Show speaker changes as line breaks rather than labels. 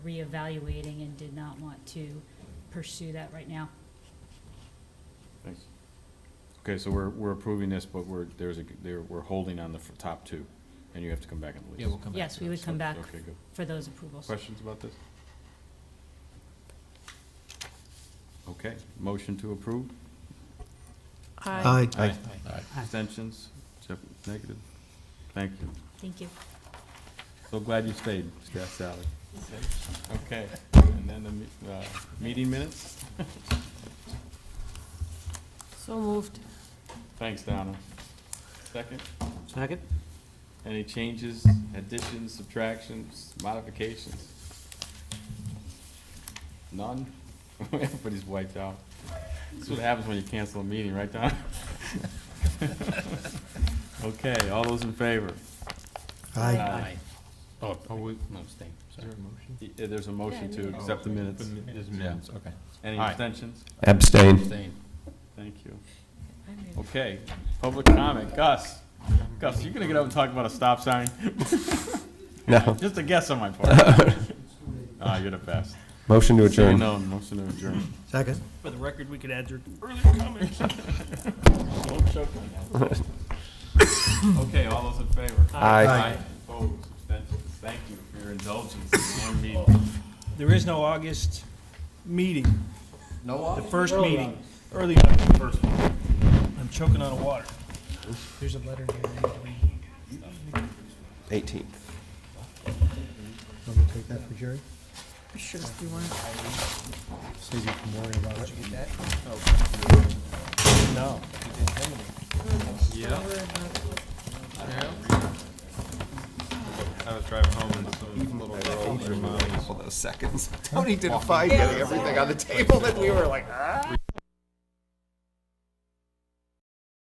reevaluating and did not want to pursue that right now.
Thanks. Okay, so we're, we're approving this, but we're, there's a, there, we're holding on the f- top two, and you have to come back and release.
Yeah, we'll come back.
Yes,
to
we
that.
would come back
Okay, good.
for those approvals.
Questions about this? Okay, motion to approve,
Aye.
Aye.
abstentions, Jeff, negative. Thank you.
Thank you.
So glad you stayed, Scott Sally. Okay, and then the, me- uh, meeting minutes?
So moved.
Thanks, Donna. Second,
Second?
any changes, additions, subtractions, modifications? None? Everybody's wiped out. That's what happens when you cancel a meeting, right, Donna? Okay, all those in favor?
Aye.
Oh, oh, we, no, stay, sorry.
Y- uh, There's a motion to
minutes.
accept the minutes.
There's minutes, okay.
Any
Aye.
abstentions?
Abstain.
Staying.
Thank you.
I made
Okay, public comment, Gus. Gus, you gonna get up and talk about a stop sign?
No.
Just a guess on my part. Ah, you're the best.
Motion to
Seeing
adjourn.
none, motion to adjourn.
Second?
For the record, we could add your
Don't choke on that. Okay, all those in favor?
Aye.
Opposed, abstentions, thank you for your indulgence in one meeting.
There is no August meeting. No August? The first meeting, early August, first one. I'm choking on a water. There's a letter here. I need to read.
18th.
I'm gonna take that for Jerry,
Sure, if you want.
save you from worrying about it.
No.
Couple of those seconds. Tony didn't find getting everything on the table that we were like, "Ah."